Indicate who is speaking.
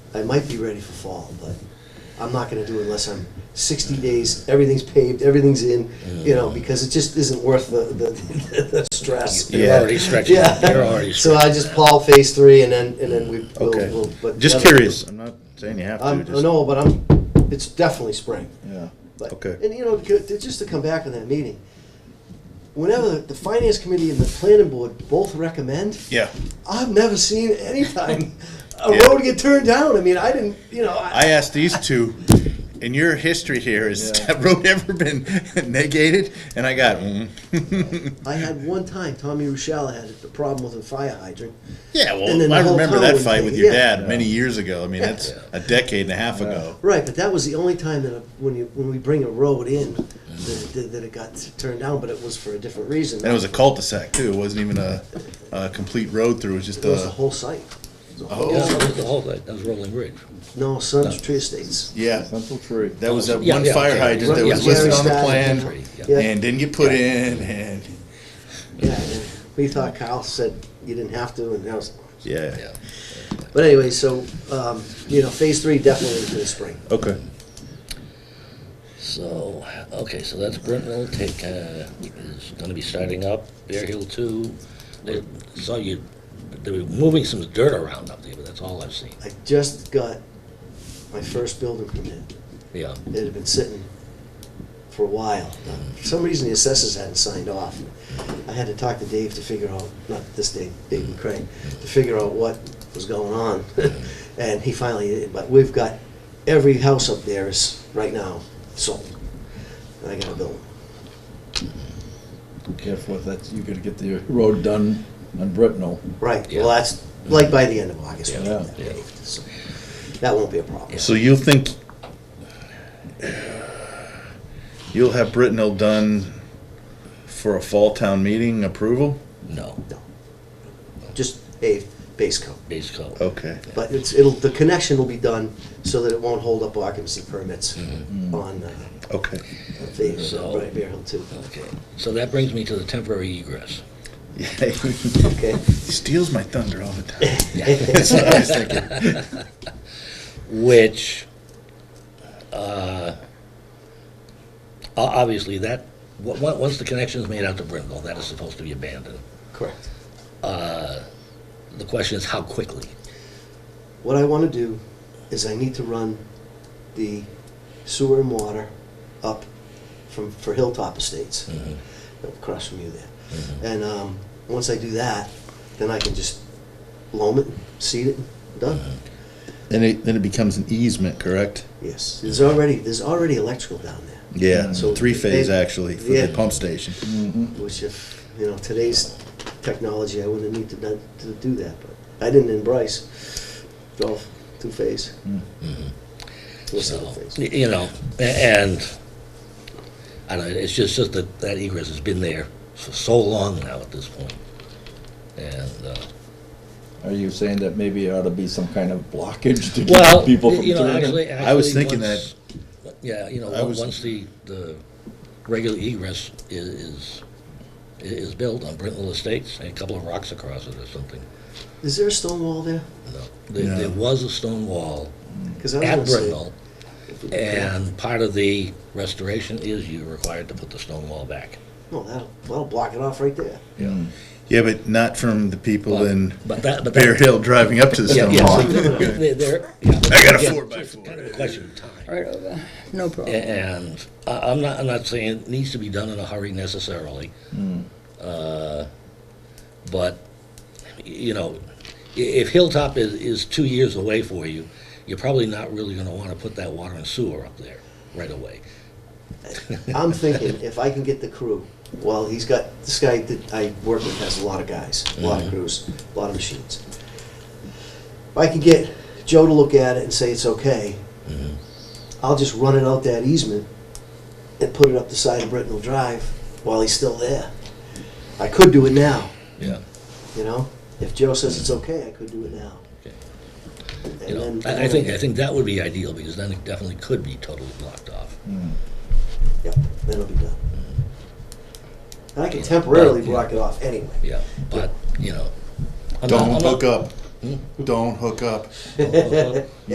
Speaker 1: I might be ready for fall, but I'm not gonna do it unless I'm sixty days, everything's paved, everything's in, you know, because it just isn't worth the, the, the stress.
Speaker 2: You're already stretching.
Speaker 1: Yeah.
Speaker 2: You're already
Speaker 1: So I just plow phase three and then, and then we, we'll,
Speaker 3: Okay.
Speaker 1: we'll. but the
Speaker 3: Just
Speaker 1: other-
Speaker 3: curious. I'm not saying you have to.
Speaker 1: I'm,
Speaker 3: Just,
Speaker 1: no, but I'm, it's definitely spring.
Speaker 3: Yeah.
Speaker 1: But-
Speaker 3: Okay.
Speaker 1: And you know, to- to- just to come back on that meeting, whenever the finance committee and the planning board both recommend,
Speaker 3: Yeah.
Speaker 1: I've never seen any time a
Speaker 3: Yeah.
Speaker 1: road get turned down. I mean, I didn't, you know, I,
Speaker 3: I asked these two, in your history here, has
Speaker 2: Yeah.
Speaker 3: that road ever been negated? And I got, mm.
Speaker 1: I had one time Tommy Rochelle had a problem with a fire hydrant.
Speaker 3: yeah,
Speaker 1: And then
Speaker 3: well,
Speaker 1: the
Speaker 3: I
Speaker 1: whole
Speaker 3: remember that
Speaker 1: town
Speaker 3: fight
Speaker 1: would
Speaker 3: with
Speaker 1: be-
Speaker 3: your
Speaker 1: yeah.
Speaker 3: dad many years ago. I mean, that's a decade and a half ago.
Speaker 1: Right, but that was the only time that when you when we bring a road in that, that, that it got turned down, but it was for a different reason.
Speaker 3: And it was a cul-de-sac too. It wasn't even a, a complete road through. It was just
Speaker 1: It was the
Speaker 3: a,
Speaker 1: whole site. It was the whole-
Speaker 2: Yeah, that was the whole, that was Rolling Ridge.
Speaker 1: No, Sun's Tree Estates.
Speaker 3: yeah.
Speaker 4: Central Tree.
Speaker 3: That was that
Speaker 2: Yeah,
Speaker 3: one
Speaker 2: yeah,
Speaker 3: fire
Speaker 2: okay.
Speaker 3: hydrant that
Speaker 1: Yeah,
Speaker 3: was listed on the
Speaker 1: yeah.
Speaker 3: plan
Speaker 1: Yeah.
Speaker 3: and didn't get put in and,
Speaker 1: Yeah, and we thought Kyle said you didn't have to, and that was.
Speaker 3: yeah.
Speaker 2: Yeah.
Speaker 1: But anyway, so um, you know, phase three definitely for the spring.
Speaker 3: Okay.
Speaker 2: So, okay, so that's Brentville take, uh, is gonna be starting up, Bear Hill two. They saw you, they were moving some dirt around up there, but that's all I've seen.
Speaker 1: I just got my first building permit.
Speaker 2: Yeah,
Speaker 1: It had been sitting for a while. For some reason, the assessors hadn't signed off. I had to talk to Dave to figure out, not this Dave, Dave McCray, to figure out what was going on. And he finally, but we've got, every house up there is, right now, sold. And I got a building.
Speaker 4: Careful with that. You're gonna get the road done on Britnell.
Speaker 1: Right, well,
Speaker 2: Yeah.
Speaker 1: that's, like, by the end of August. we'll have that
Speaker 2: Yeah.
Speaker 1: paved, so That won't be a problem.
Speaker 3: So you'll think you'll have Brittenell done for a fall town meeting approval?
Speaker 2: no,
Speaker 1: No. Just paved, base coat.
Speaker 2: base coat.
Speaker 1: Oh.
Speaker 3: Okay.
Speaker 1: But it's, it'll, the connection will be done so that it won't hold up occupancy permits on, uh,
Speaker 3: Okay.
Speaker 1: phase,
Speaker 2: So-
Speaker 1: right, Bear Hill too.
Speaker 2: Okay, so that brings me to the temporary egress.
Speaker 3: he
Speaker 1: Okay,
Speaker 3: steals my thunder all the time.
Speaker 2: Yeah.
Speaker 3: That's what I was thinking.
Speaker 2: which uh, o- obviously that wa- wa- once the connection is made out to Brindle, that is supposed to be abandoned.
Speaker 1: correct.
Speaker 2: The question is how quickly.
Speaker 1: What I wanna do is I need to run the sewer and water up from, for Hilltop Estates, across from you there. And, um, once I do that, then I can just loam it, seed it, done.
Speaker 3: Then it then it becomes an easement, correct?
Speaker 1: Yes, there's already, there's already electrical down there.
Speaker 3: Yeah.
Speaker 1: So
Speaker 3: Mm. three phase
Speaker 1: they-
Speaker 3: actually for
Speaker 1: yeah.
Speaker 3: the pump station.
Speaker 1: Which if, you know, today's technology, I wouldn't need to, do- to do that, but I didn't in Bryce. All two-phase. Or
Speaker 2: Mm-hmm. So,
Speaker 1: single-phase.
Speaker 2: y- you know, a- and I don't know, it's just, just that that egress has been there for so long now at this point. And, uh,
Speaker 4: Are you saying that maybe it ought to be some kind of blockage to
Speaker 2: well,
Speaker 4: keep
Speaker 2: y-
Speaker 4: people from
Speaker 2: you know,
Speaker 4: turning?
Speaker 2: actually,
Speaker 3: I was
Speaker 2: actually,
Speaker 3: thinking
Speaker 2: once- Yeah, you know,
Speaker 3: I
Speaker 2: on-
Speaker 3: was-
Speaker 2: once the, the regular egress i- is, i- is built on Brittenell Estates, and a couple of rocks across it or something,
Speaker 1: Is there a stone wall there?
Speaker 2: No, there, there
Speaker 3: No.
Speaker 2: was a stone wall
Speaker 1: Because I
Speaker 2: at
Speaker 1: was gonna say-
Speaker 2: Brittenell, and part of the restoration is you're required to put the stone wall back.
Speaker 1: No, that'll, that'll block it off right there.
Speaker 3: Yeah, but not from the people
Speaker 2: But-
Speaker 3: in
Speaker 2: But that, but that.
Speaker 3: Bear Hill driving up to the
Speaker 2: Yeah,
Speaker 3: stone
Speaker 2: yeah, so
Speaker 3: wall.
Speaker 2: they're- they're- they're- yeah, but
Speaker 3: I got a
Speaker 2: again,
Speaker 3: four by
Speaker 2: it's
Speaker 3: four.
Speaker 2: Kind of a question of time.
Speaker 5: right over. No problem.
Speaker 2: And I, I'm not, I'm not saying it needs to be done in a hurry necessarily. Uh, But, y- you know, i- if Hilltop is, is two years away for you, you're probably not really gonna wanna put that water and sewer up there right away.
Speaker 1: I'm thinking if I can get the crew, well, he's got, this guy that I work with has a lot of guys, a lot of
Speaker 2: Mm-hmm.
Speaker 1: crews, a lot of machines. If I can get Joe to look at it and say it's okay,
Speaker 2: Mm-hmm.
Speaker 1: I'll just run it out that easement and put it up the side of Brittenell Drive while he's still there. I could do it now,
Speaker 2: Yeah.
Speaker 1: you know? If Joe says it's okay, I could do it now.
Speaker 2: Okay. You know,
Speaker 1: And then-
Speaker 2: I I think, I think that would be ideal, because then it definitely could be totally blocked off.
Speaker 1: Yep, then it'll be done. And I can temporarily block it off anyway.
Speaker 2: Yeah, but, you know. I'm not- Hmm? I'm
Speaker 3: Don't
Speaker 2: not-
Speaker 3: hook up. Don't hook up.